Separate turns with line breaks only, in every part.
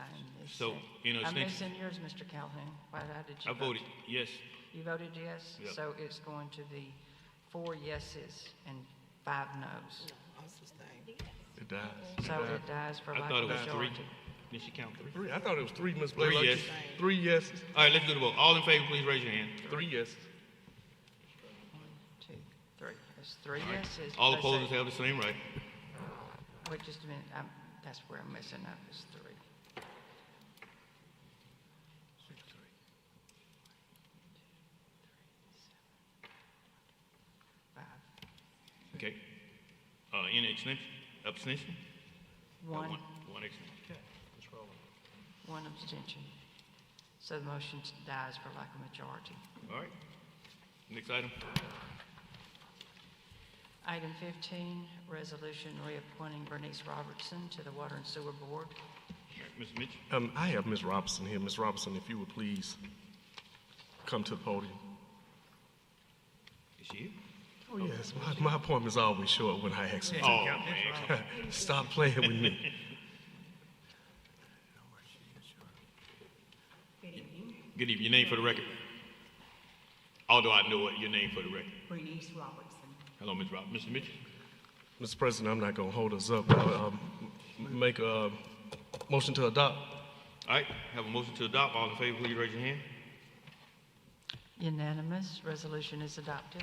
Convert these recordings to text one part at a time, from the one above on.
I missed
So,
it.
you know,
I'm
since-
missing yours, Mr. Calhoun. Why how did you
I
vote?
voted yes.
You voted yes?
Yep.
So it's going to the four yeses and five noes.
It dies.
So it dies for
I
lack
thought
of
it was three.
majority.
Did she count three?
Three, I thought it was three, Ms.
Three
Blaylock.
yes.
Three yeses,
All right, let's do the vote. All in favor, please raise your hand.
three yeses.
One, two, three. It's three yeses.
All
plus
opposers
a-
have the same right.
Wait just a minute, I'm, that's where I'm messing up, is three. Five.
Okay. Uh, any extension? Abstention? Uh,
One,
One extension.
one abstention. So the motion dies for lack of majority.
All right. Next item.
Item 15, resolution reappointing Bernice Robertson to the Water and Sewer Board.
All right, Mr. Mitchell.
Um, I have Ms. Robinson here. Ms. Robinson, if you would please come to the podium.
Is she here?
Oh, yes, my, my appointment's always short when I ask you.
Oh, man. come on.
Stop playing with me.
Good evening. Your name for the record. Although I know what your name for the record.
Bernice Robertson.
Hello, Ms. Rob. Mr. Mitchell.
Mr. President, I'm not gonna hold us up. I'll, um, make a motion to adopt.
All right. Have a motion to adopt. All in favor, please raise your hand.
Unanimous, resolution is adopted.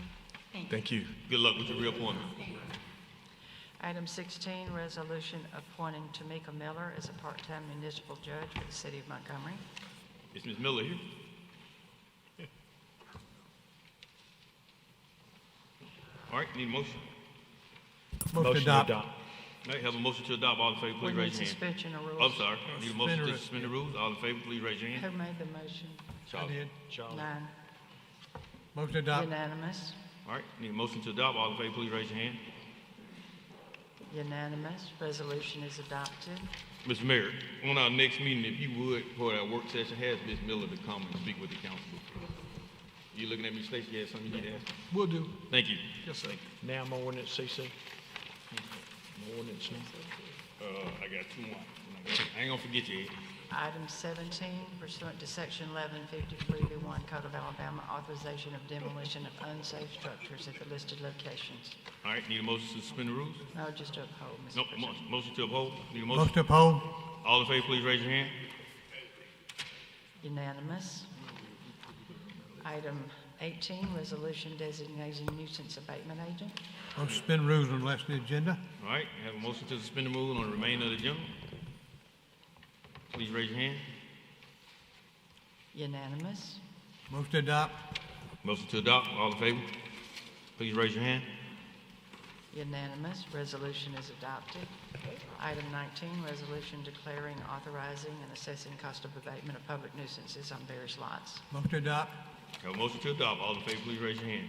Thank you.
Good luck with your reappointment.
Item 16, resolution appointing Tamika Miller as a part-time municipal judge for the city of Montgomery.
Is Ms. Miller here? All right, need a motion?
Motion to adopt.
All right, have a motion to adopt. All in favor,
We
please
need
raise your hand.
suspension of rules.
I'm sorry, need a motion to suspend the rules. All in favor, please raise your hand.
Who made the motion?
Charles.
did.
Nine.
Motion to adopt.
Unanimous,
All right, need a motion to adopt. All in favor, please raise your hand.
unanimous, resolution is adopted.
Mr. Mayor, on our next meeting, if you would, for our work session, have Ms. Miller to come and speak with the council. You looking at me, Stacy, you have something you need to ask?
Will do.
Thank you.
Yes, sir.
Now I'm on ordinance CC. My ordinance now.
Uh, I got two more. I ain't gonna forget you, Ed.
Item 17, pursuant to Section 1153B1 Code of Alabama, authorization of demolition of unsafe structures at the listed locations.
All right, need a motion to suspend the rules?
No, just to uphold, Mr.
No,
President.
mo- motion to uphold. Need a
Motion
motion?
to uphold.
All in favor, please raise your hand.
Unanimous. Item 18, resolution designating nuisance abatement agent.
Motion to suspend rules on the last of the agenda.
All right, have a motion to suspend the rule on the remainder of the agenda. Please raise your hand.
Unanimous.
Motion to adopt.
Motion to adopt. All in favor? Please raise your hand.
Unanimous. Resolution is adopted. Item 19, resolution declaring, authorizing, and assessing cost of abatement of public nuisances on various lots.
Motion to adopt.
Have a motion to adopt. All in favor, please raise your hand.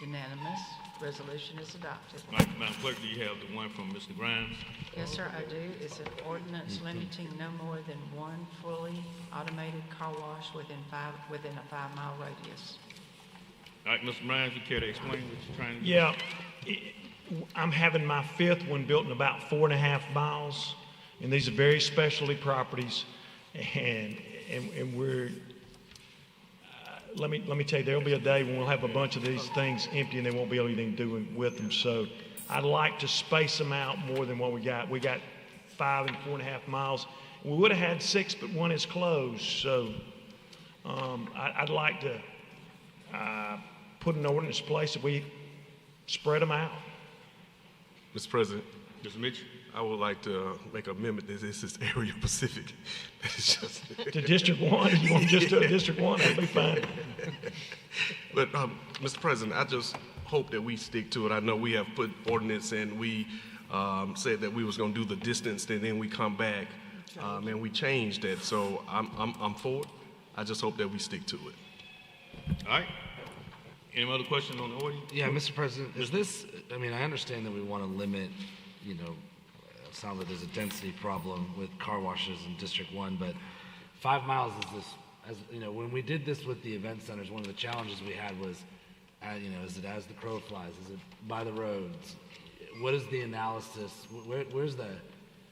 Unanimous. Resolution is adopted.
All right, Madam Clerk, do you have the one from Mr. Grimes?
Yes, sir, I do. It's an ordinance limiting no more than one fully automated car wash within five, within a five-mile radius.
All right, Mr. Grimes, you care to explain what you're trying to do?
Yeah, it- I'm having my fifth one built in about four and a half miles, and these are very specialty properties, and, and, and we're, uh, let me, let me tell you, there'll be a day when we'll have a bunch of these things empty and they won't be able to do anything doing with them, so I'd like to space them out more than what we got. We got five and four and a half miles. We would have had six, but one is closed, so, um, I, I'd like to, uh, put an ordinance in place that we spread them out.
Mr. President,
Mr. Mitchell?
I would like to uh, make an amendment that this is area Pacific. That is just,
to District One. You want to just do a District One? That'd be fine.
but, um, Mr. President, I just hope that we stick to it. I know we have put ordinance and we, um, said that we was gonna do the distance and then we come back, um, and we changed that. So I'm, I'm, I'm for it. I just hope that we stick to it.
All right. Any other questions on the order?
Yeah, Mr. President, is this, I mean, I understand that we want to limit, you know, it sounds like there's a density problem with car washes in District One, but five miles is this, as, you know, when we did this with the event centers, one of the challenges we had was, uh, you know, is it as the crow flies? Is it by the roads? What is the analysis? Wh- Where, where's the,